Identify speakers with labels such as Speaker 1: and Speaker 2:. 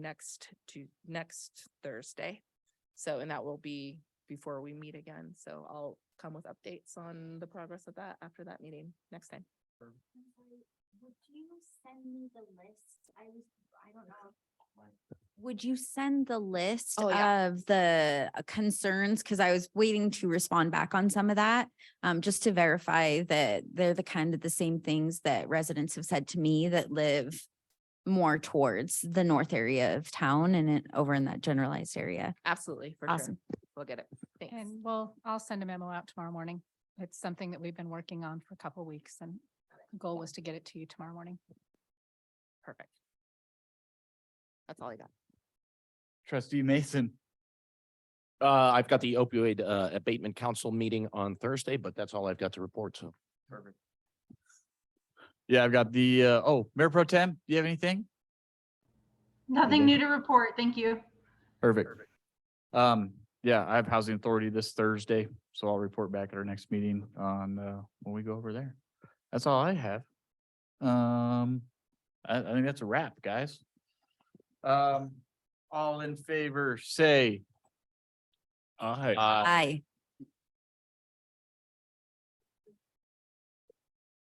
Speaker 1: next to, next Thursday. So, and that will be before we meet again. So I'll come with updates on the progress of that after that meeting next time.
Speaker 2: I'm sorry, Would you send me the list? I was, I don't know. Would you send the list
Speaker 1: Oh, yeah.
Speaker 2: of the uh, concerns? Cause I was waiting to respond back on some of that. Um, just to verify that they're the kind of the same things that residents have said to me that live more towards the north area of town and it over in that generalized area.
Speaker 1: Absolutely, for sure.
Speaker 2: Awesome.
Speaker 1: We'll get it. Thanks.
Speaker 3: And we'll, I'll send a memo out tomorrow morning. It's something that we've been working on for a couple weeks and the goal was to get it to you tomorrow morning.
Speaker 1: Perfect. That's all I got.
Speaker 4: Trustee Mason.
Speaker 5: Uh, I've got the opioid uh abatement council meeting on Thursday, but that's all I've got to report to.
Speaker 4: Perfect. Yeah, I've got the, uh, oh, Mayor Pro Tem, do you have anything?
Speaker 6: Nothing new to report. Thank you.
Speaker 4: Perfect. Um, yeah, I have Housing Authority this Thursday, so I'll report back at our next meeting on, uh, when we go over there. That's all I have. Um, I, I think that's a wrap, guys. Um, all in favor, say. Aye.
Speaker 2: Aye.